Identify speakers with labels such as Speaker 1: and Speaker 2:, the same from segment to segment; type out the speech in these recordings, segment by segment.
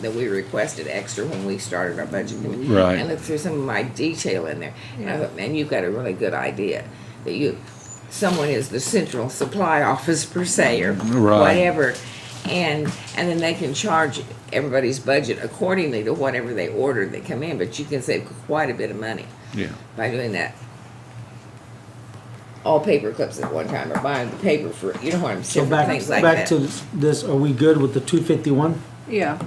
Speaker 1: that we requested extra when we started our budget committee.
Speaker 2: Right.
Speaker 1: And looked through some of my detail in there, and I thought, man, you've got a really good idea, that you, someone is the central supply office per se, or
Speaker 2: Right.
Speaker 1: whatever. And, and then they can charge everybody's budget accordingly to whatever they order that come in, but you can save quite a bit of money
Speaker 2: Yeah.
Speaker 1: by doing that. All paper clips at one time, or buying the paper for, you know what I'm
Speaker 3: So
Speaker 1: saying,
Speaker 3: back,
Speaker 1: things like that.
Speaker 3: back to this, are we good with the two fifty-one?
Speaker 4: Yeah,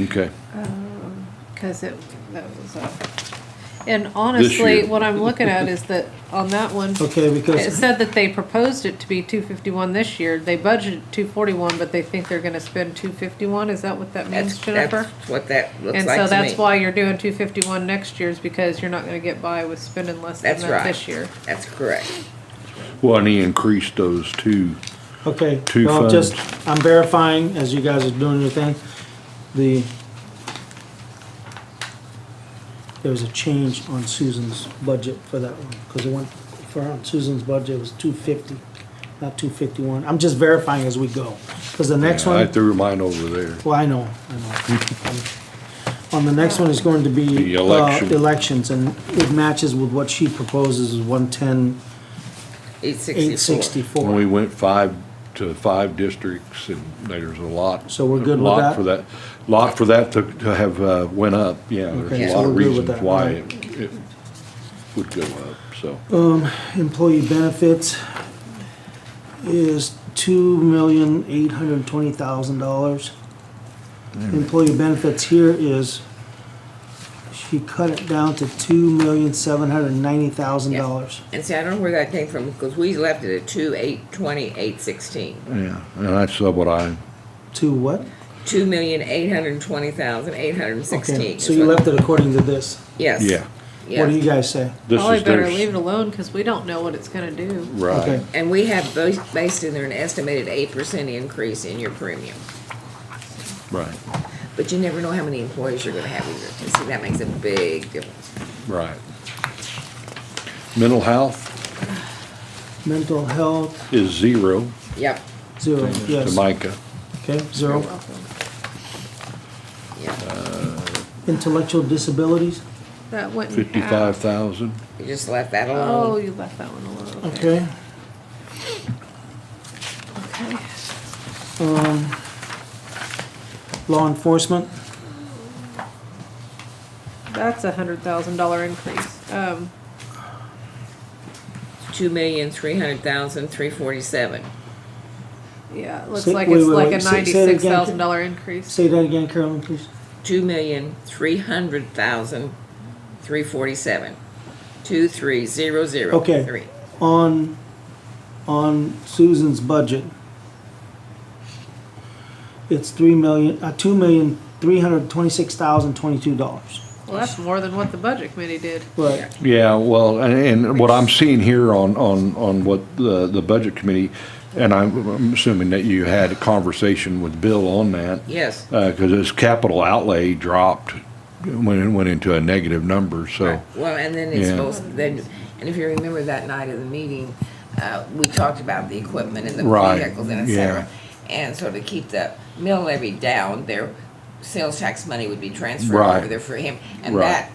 Speaker 2: Okay.
Speaker 4: because it, that was a. And honestly,
Speaker 2: year.
Speaker 4: what I'm looking at is that on that one,
Speaker 3: Okay,
Speaker 4: it
Speaker 3: because,
Speaker 4: said that they proposed it to be two fifty-one this year. They budgeted two forty-one, but they think they're gonna spend two fifty-one. Is that what that means,
Speaker 1: That's,
Speaker 4: Jennifer?
Speaker 1: that's what that looks
Speaker 4: And
Speaker 1: like
Speaker 4: so
Speaker 1: to
Speaker 4: that's
Speaker 1: me.
Speaker 4: why you're doing two fifty-one next year is because you're not gonna get by with spending less than
Speaker 1: That's
Speaker 4: that
Speaker 1: right.
Speaker 4: this year.
Speaker 1: That's correct.
Speaker 2: Well, and he increased those two.
Speaker 3: okay.
Speaker 2: Two
Speaker 3: well,
Speaker 2: funds.
Speaker 3: just I'm verifying as you guys are doing your thing, the, there was a change on Susan's budget for that one, because it went, for on Susan's budget, it was two fifty, not two fifty-one. I'm just verifying as we go, because the next
Speaker 2: I
Speaker 3: one,
Speaker 2: threw mine over there.
Speaker 3: well, I know, I know. On the next one is going to be.
Speaker 2: The
Speaker 3: uh,
Speaker 2: election.
Speaker 3: Elections, and it matches with what she proposes, is one-ten,
Speaker 1: Eight sixty-four.
Speaker 3: eight
Speaker 2: When we
Speaker 3: sixty-four.
Speaker 2: went five to five districts and there's a lot.
Speaker 3: So we're good with
Speaker 2: lot
Speaker 3: that?
Speaker 2: For that, lot for that to, to have, uh, went up, yeah.
Speaker 3: Okay,
Speaker 2: There's a
Speaker 1: so
Speaker 2: lot of
Speaker 3: we're good with
Speaker 2: reasons
Speaker 3: that,
Speaker 2: why
Speaker 3: right.
Speaker 2: it, it would go up, so.
Speaker 3: Oh. Employee benefits is two million, eight hundred and twenty thousand dollars. Employee benefits here is, she cut it down to two million, seven hundred and ninety thousand dollars.
Speaker 1: And see, I don't know where that came from, because we left it at two, eight, twenty, eight, sixteen.
Speaker 2: Yeah, and that's what I,
Speaker 3: To what?
Speaker 1: Two million, eight hundred and twenty thousand, eight hundred and
Speaker 3: Okay,
Speaker 1: sixteen.
Speaker 3: So you left it according to this.
Speaker 1: Yes.
Speaker 2: yeah.
Speaker 3: What do you
Speaker 1: Yes.
Speaker 3: guys say?
Speaker 2: This
Speaker 4: Probably
Speaker 2: is
Speaker 4: better
Speaker 2: their-
Speaker 4: leave it alone because we don't know what it's gonna do.
Speaker 2: Right.
Speaker 3: Okay,
Speaker 1: And we have both based in there an estimated eight percent increase in your premium.
Speaker 2: Right,
Speaker 1: But you never know how many employees you're gonna have either. And see, that makes a big difference.
Speaker 2: right. Mental health
Speaker 3: mental health,
Speaker 2: is zero
Speaker 1: Yep,
Speaker 3: zero,
Speaker 2: to
Speaker 3: yes,
Speaker 2: Micah.
Speaker 3: okay, zero.
Speaker 1: yeah.
Speaker 3: Intellectual disabilities,
Speaker 4: That wouldn't happen.
Speaker 2: Fifty-five thousand,
Speaker 1: You just left that
Speaker 4: Oh,
Speaker 1: alone.
Speaker 4: you left that one alone.
Speaker 3: okay.
Speaker 4: Okay.
Speaker 3: Um, Law enforcement,
Speaker 4: That's a hundred thousand dollar increase. Um,
Speaker 1: Two million, three hundred thousand, three forty-seven.
Speaker 4: yeah, it looks
Speaker 3: Say-
Speaker 4: like
Speaker 3: wait,
Speaker 4: it's
Speaker 3: wait,
Speaker 4: like
Speaker 3: wait,
Speaker 4: a
Speaker 3: say- say it again.
Speaker 4: ninety-six thousand dollar increase.
Speaker 3: say that again, Carolyn, please.
Speaker 1: Two million, three hundred thousand, three forty-seven. Two, three, zero, zero,
Speaker 3: Okay.
Speaker 1: three.
Speaker 3: On, on Susan's budget, it's three million, uh, two million, three hundred twenty-six thousand, twenty-two dollars.
Speaker 4: Well, that's more than what the budget committee did.
Speaker 3: Right,
Speaker 2: Yeah, well, and, and what I'm seeing here on, on, on what the, the budget committee, and I'm I'm assuming that you had a conversation with Bill on that.
Speaker 1: Yes.
Speaker 2: Uh, cause his capital outlay dropped, when it went into a negative number, so.
Speaker 1: Right. Well, and then it's
Speaker 2: Yeah.
Speaker 1: supposed, then, and if you remember that night of the meeting, uh, we talked about the equipment and the
Speaker 2: Right,
Speaker 1: vehicles and et
Speaker 2: yeah.
Speaker 1: cetera. And so to keep the mill levy down, their sales tax money would be transferred
Speaker 2: Right.
Speaker 1: over there for him. And
Speaker 2: Right.
Speaker 1: that,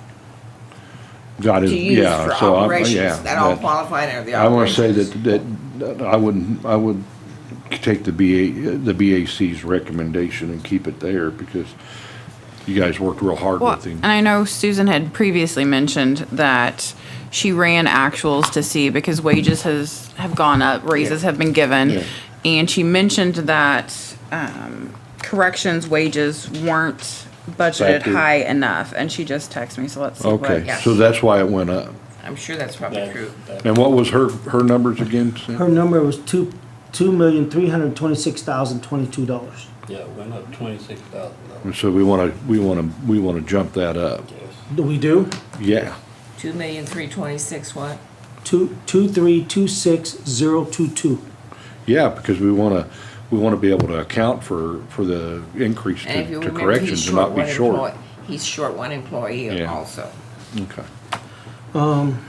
Speaker 2: Got his,
Speaker 1: to use
Speaker 2: yeah,
Speaker 1: for
Speaker 2: so I, yeah.
Speaker 1: operations, that all
Speaker 2: that-
Speaker 1: qualified under the
Speaker 2: I wanna say
Speaker 1: operations.
Speaker 2: that, that, that I wouldn't, I would take the BA, the BAC's recommendation and keep it there, because you guys worked real hard
Speaker 5: Well,
Speaker 2: with him.
Speaker 5: and I know Susan had previously mentioned that she ran actuals to see because wages has, have gone up, raises have been
Speaker 2: Yeah.
Speaker 5: given. And she mentioned that, um, corrections wages weren't budgeted
Speaker 2: Factored.
Speaker 5: high enough. And she just texted me, so let's see what.
Speaker 2: Okay,
Speaker 1: Yes.
Speaker 2: so that's why it went up.
Speaker 1: I'm sure that's probably true.
Speaker 2: And what was her, her numbers again? Sam?
Speaker 3: her number was two, two million, three hundred twenty-six thousand, twenty-two dollars.
Speaker 6: Yeah, it went up twenty-six thousand dollars.
Speaker 2: And So we wanna, we wanna, we wanna jump that up.
Speaker 3: Do we do?
Speaker 2: Yeah,
Speaker 1: Two million, three twenty-six what?
Speaker 3: Two, two, three, two, six, zero, two, two.
Speaker 2: yeah, because we wanna, we wanna be able to account for, for the increase
Speaker 1: And if you
Speaker 2: to to
Speaker 1: remember, he's
Speaker 2: corrections
Speaker 1: short
Speaker 2: and not
Speaker 1: one
Speaker 2: be
Speaker 1: employee,
Speaker 2: short.
Speaker 1: he's short one employee
Speaker 2: Yeah.
Speaker 1: also.
Speaker 2: Okay.
Speaker 3: Um,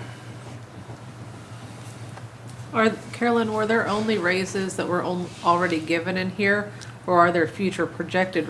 Speaker 4: Are, Carolyn, were there only raises that were on- already given in here? Or are there future projected